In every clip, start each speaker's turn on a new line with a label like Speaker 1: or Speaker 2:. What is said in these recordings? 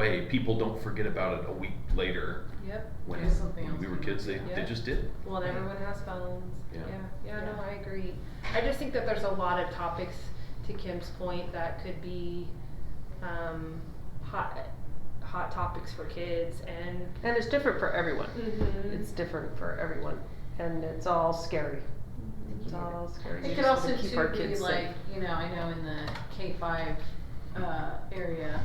Speaker 1: way, people don't forget about it a week later.
Speaker 2: Yep.
Speaker 1: When
Speaker 2: do something
Speaker 1: when
Speaker 2: else.
Speaker 1: we were kids, they, they
Speaker 2: Yeah.
Speaker 1: just did.
Speaker 3: Well, and everyone has phones.
Speaker 1: Yeah.
Speaker 3: Yeah, yeah, no,
Speaker 2: Yeah.
Speaker 3: I agree. I just think that there's a lot of topics, to Kim's point, that could be, um, hot, hot topics for kids and.
Speaker 4: And it's different for everyone.
Speaker 3: Mhm.
Speaker 4: It's different for everyone, and it's all scary. It's all scary. We
Speaker 2: It could
Speaker 4: just wanna
Speaker 2: also
Speaker 4: keep our
Speaker 2: too be
Speaker 4: kids safe.
Speaker 2: like, you know, I know in the K five, uh, area,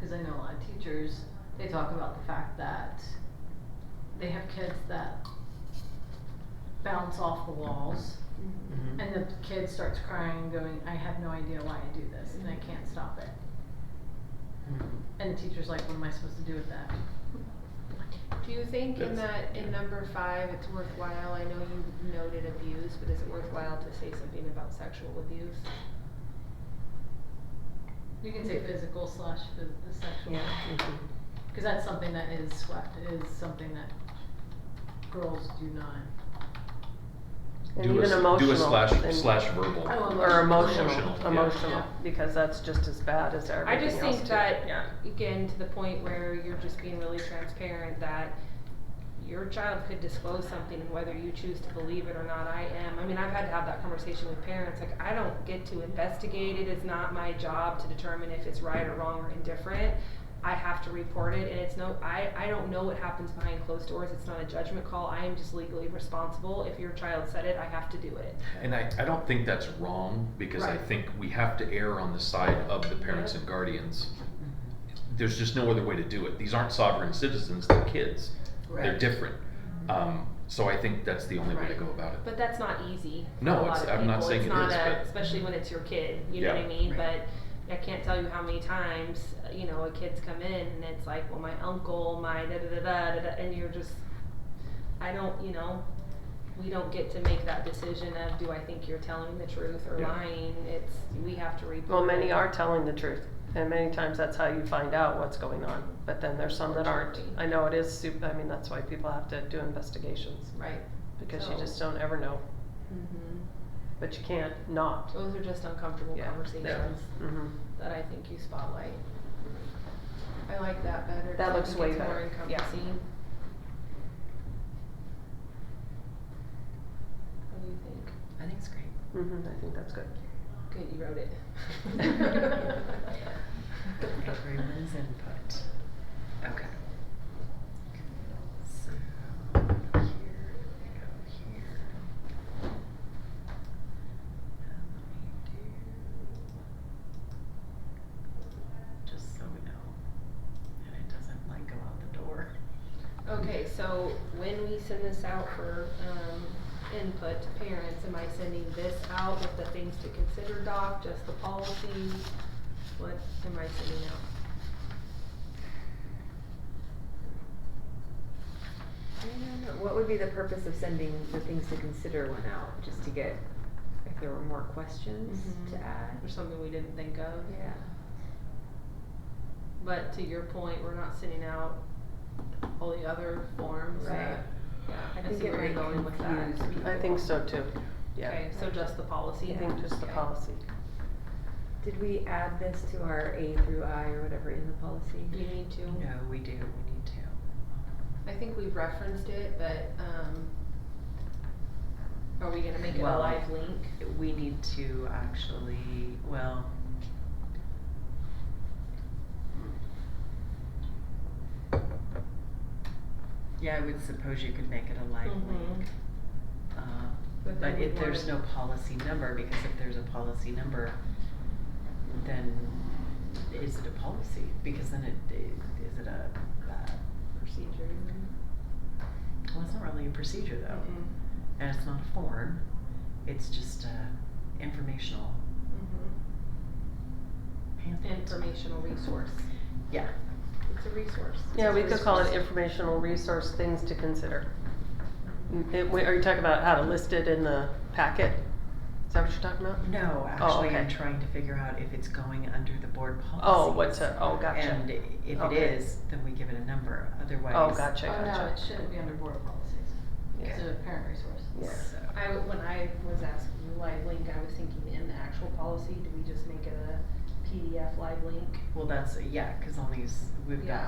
Speaker 2: cause I know a lot of teachers, they talk about the fact that they have kids that bounce off the walls
Speaker 5: Mm-hmm.
Speaker 6: Mm-hmm.
Speaker 2: and the kid starts crying going, I have no idea why I do this and I
Speaker 4: Mm-hmm.
Speaker 2: can't stop it. And the teacher's like, what am I supposed to do with that?
Speaker 3: Do you think in
Speaker 1: That's-
Speaker 3: that, in number five, it's worthwhile, I know you noted abuse, but is it worthwhile to say something about sexual abuse?
Speaker 2: You can say physical slash phys- sexual.
Speaker 4: Yeah. mhm.
Speaker 2: Because that's something that is swept, is something that girls do not.
Speaker 4: And
Speaker 1: do a
Speaker 4: even
Speaker 1: s- Do
Speaker 4: emotional
Speaker 1: a slash,
Speaker 4: and-
Speaker 1: slash verbal.
Speaker 2: Oh,
Speaker 4: Or emotional,
Speaker 1: Emotional, yeah.
Speaker 4: emotional,
Speaker 2: Yeah.
Speaker 4: because that's just as bad as everything
Speaker 3: I just
Speaker 4: else
Speaker 3: think
Speaker 4: too.
Speaker 3: that,
Speaker 4: Yeah.
Speaker 3: again, to the point where you're just being really transparent that your child could disclose something and whether you choose to believe it or not, I am. I mean, I've had to have that conversation with parents, like, I don't get to investigate it, it's not my job to determine if it's right or wrong or indifferent. I have to report it and it's no, I, I don't know what happens behind closed doors, it's not a judgment call, I am just legally responsible. If your child said it, I have to do it.
Speaker 1: And I, I don't think that's wrong because I
Speaker 3: Right.
Speaker 1: think we have to err on the side of the parents
Speaker 3: Yeah.
Speaker 1: and guardians.
Speaker 2: Mm-hmm.
Speaker 1: There's just no other way to do it. These aren't sovereign citizens, they're kids. They're different. Um, so I think that's the only way to
Speaker 2: Right.
Speaker 1: go about it.
Speaker 3: But that's not easy. for
Speaker 1: No,
Speaker 3: a lot
Speaker 1: it's-
Speaker 3: of
Speaker 1: I'm not
Speaker 3: people.
Speaker 1: saying
Speaker 3: it's
Speaker 1: it
Speaker 3: not
Speaker 1: is,
Speaker 3: a,
Speaker 1: but-
Speaker 3: especially when it's your kid. You know
Speaker 1: Yeah.
Speaker 3: what I mean?
Speaker 2: Right.
Speaker 3: But I can't tell you how many times uh, you know a kid's come in and it's like, well, my uncle, my da da da da da, da and you're just, I don't, you know, we don't get to make that decision of do I think you're telling the truth or
Speaker 1: Yeah.
Speaker 3: lying. It's we have to report.
Speaker 4: Well, many
Speaker 3: it.
Speaker 4: are telling the truth, and many times that's how you find out what's going on, but then there's some that aren't. I know it is super, I mean, that's why people have to do investigations,
Speaker 3: right.
Speaker 4: because you
Speaker 3: So-
Speaker 4: just don't ever know,
Speaker 3: hmm
Speaker 4: but you can't not.
Speaker 3: Those are just uncomfortable
Speaker 4: Yeah.
Speaker 3: conversations
Speaker 4: Mhm.
Speaker 3: that I think you spotlight. I like that better. 'cause
Speaker 4: That
Speaker 3: I
Speaker 4: looks
Speaker 3: think
Speaker 4: way
Speaker 3: it's More
Speaker 4: better. Yeah.
Speaker 3: encompassing. What do you think?
Speaker 5: I think it's great.
Speaker 4: Mhm, I think that's good.
Speaker 3: Good, you wrote it.
Speaker 5: Everyone's input. Okay. So here we go here. And let me do just so we know that it doesn't like go out the door.
Speaker 3: Okay, so when we send this out for, um, input to parents, am I sending this out with the things to consider doc, just the policy? What am I sending out?
Speaker 6: I don't know. What would be the purpose of sending the things to consider one out, just to get, if there were more questions
Speaker 3: Mhm.
Speaker 5: Mm-hmm.
Speaker 6: to add?
Speaker 3: Or something we didn't think of?
Speaker 6: Yeah.
Speaker 3: But to your point, we're not sending out all the other forms
Speaker 6: Right.
Speaker 3: that, yeah,
Speaker 6: I
Speaker 3: I
Speaker 6: think
Speaker 3: see
Speaker 6: it
Speaker 3: where you're
Speaker 6: might
Speaker 3: going with that.
Speaker 6: confuse people.
Speaker 4: I think so too, yeah.
Speaker 3: Okay, so just the policy
Speaker 4: I
Speaker 3: then?
Speaker 4: think just the
Speaker 3: Okay.
Speaker 4: policy.
Speaker 6: Did we add this to our A through I or whatever in the policy?
Speaker 3: You need to,
Speaker 5: No, we do, we need to.
Speaker 3: I think we've referenced it, but, um, are we gonna make it a
Speaker 5: Well-
Speaker 3: live link?
Speaker 5: We need to actually, well. Yeah, I would suppose you could make it a live
Speaker 3: Mm-hmm.
Speaker 5: link. Um,
Speaker 3: But then
Speaker 5: But
Speaker 3: we
Speaker 5: if there's no
Speaker 3: wanna-
Speaker 5: policy number, because if there's a policy number, then is it a policy? Because then it, it- is it a, uh,
Speaker 3: Procedure.
Speaker 5: well, it's not really a procedure though.
Speaker 3: Mhm.
Speaker 5: And it's not a form, it's just uh, informational
Speaker 3: Mhm.
Speaker 5: pamphlet.
Speaker 3: Informational resource,
Speaker 5: Yeah.
Speaker 3: it's a resource.
Speaker 4: Yeah, we could call it informational resource, things to consider. Mm, it- wait, Are you talking about how to list it in the packet? Is that what you're talking about?
Speaker 5: No, actually, I'm
Speaker 4: okay.
Speaker 5: trying to figure out if it's going under the board policy.
Speaker 4: Oh, what's a, oh,
Speaker 5: And
Speaker 4: gotcha.
Speaker 5: if it
Speaker 4: Okay.
Speaker 5: is, then we give it a number, otherwise.
Speaker 4: Oh, gotcha,
Speaker 2: Oh, no,
Speaker 4: gotcha.
Speaker 2: it shouldn't be under board policies.
Speaker 4: Yeah.
Speaker 2: It's a parent resource.
Speaker 4: Yeah.
Speaker 5: So-
Speaker 3: I, when I was asking the live link, I was thinking in the actual policy, do we just make it a
Speaker 5: PDF live link.
Speaker 3: Well, that's, yeah, cause on these, we've
Speaker 5: Yeah.
Speaker 3: got